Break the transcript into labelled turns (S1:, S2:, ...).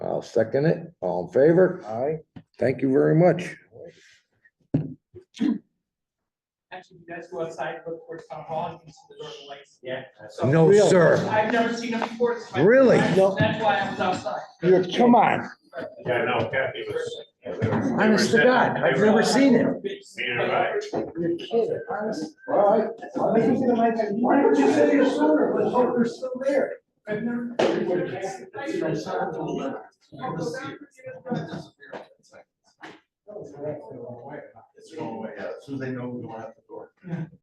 S1: I'll second it. All in favor?
S2: Aye.
S1: Thank you very much.
S3: Actually, you guys go outside, look towards town hall, and you can see the northern lights. Yeah. So
S1: No,
S2: Really?
S1: sir.
S3: I've never seen them before. it's my-
S1: Really?
S2: No.
S3: That's why I was outside.
S2: You're, come on,
S4: Yeah, no, Kathy was.
S2: honest to God, I've never seen it.
S4: Neither have I.
S2: You're kidding, honest.
S5: All right. Why didn't you say it sooner? Let's hope they're still there. It's going away, yeah, as soon as they know we going out the door.